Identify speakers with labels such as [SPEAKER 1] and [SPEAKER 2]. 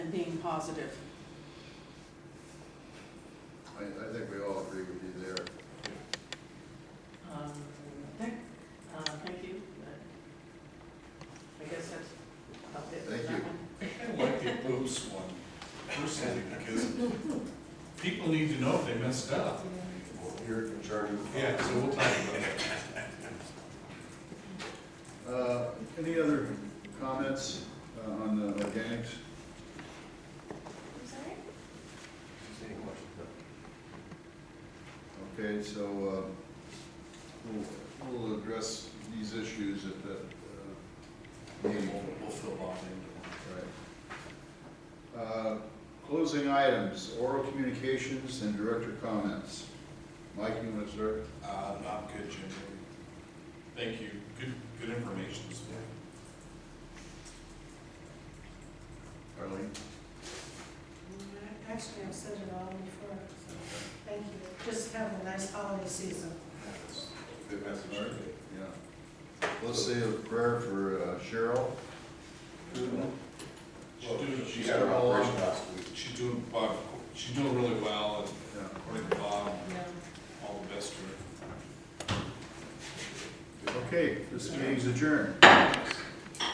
[SPEAKER 1] and being positive.
[SPEAKER 2] I, I think we all agree with you there.
[SPEAKER 1] Um, okay, uh, thank you. I guess that's about it for
[SPEAKER 2] Thank
[SPEAKER 1] that
[SPEAKER 2] you.
[SPEAKER 1] one.
[SPEAKER 3] I like the Bruce one, Bruce thing, because people need to know if they messed up.
[SPEAKER 2] You're in charge of.
[SPEAKER 3] Yeah, so we'll talk about it.
[SPEAKER 2] Uh, any other comments uh, on the organics?
[SPEAKER 4] I'm sorry?
[SPEAKER 2] Okay, so, uh, we'll, we'll address these issues at that, uh, meeting.
[SPEAKER 3] We'll fill Bob in.
[SPEAKER 2] Right. Uh, Closing items, oral communications and director comments. Mike, you want to start?
[SPEAKER 3] Uh, I'm good, Jim. Thank you, good, good information this morning.
[SPEAKER 2] Arlene?
[SPEAKER 4] Actually, I've said it all before, so, thank you. Just have a nice holiday season.
[SPEAKER 3] Good message.
[SPEAKER 2] All right. Yeah. Let's say a prayer for uh, Cheryl.
[SPEAKER 3] She's doing, she's
[SPEAKER 2] had an operation
[SPEAKER 3] last week. She's doing, Bob, she's doing really well, and
[SPEAKER 2] Yeah.
[SPEAKER 3] according to Bob,
[SPEAKER 4] Yeah.
[SPEAKER 3] all the best to her.
[SPEAKER 2] Okay, this meeting's adjourned.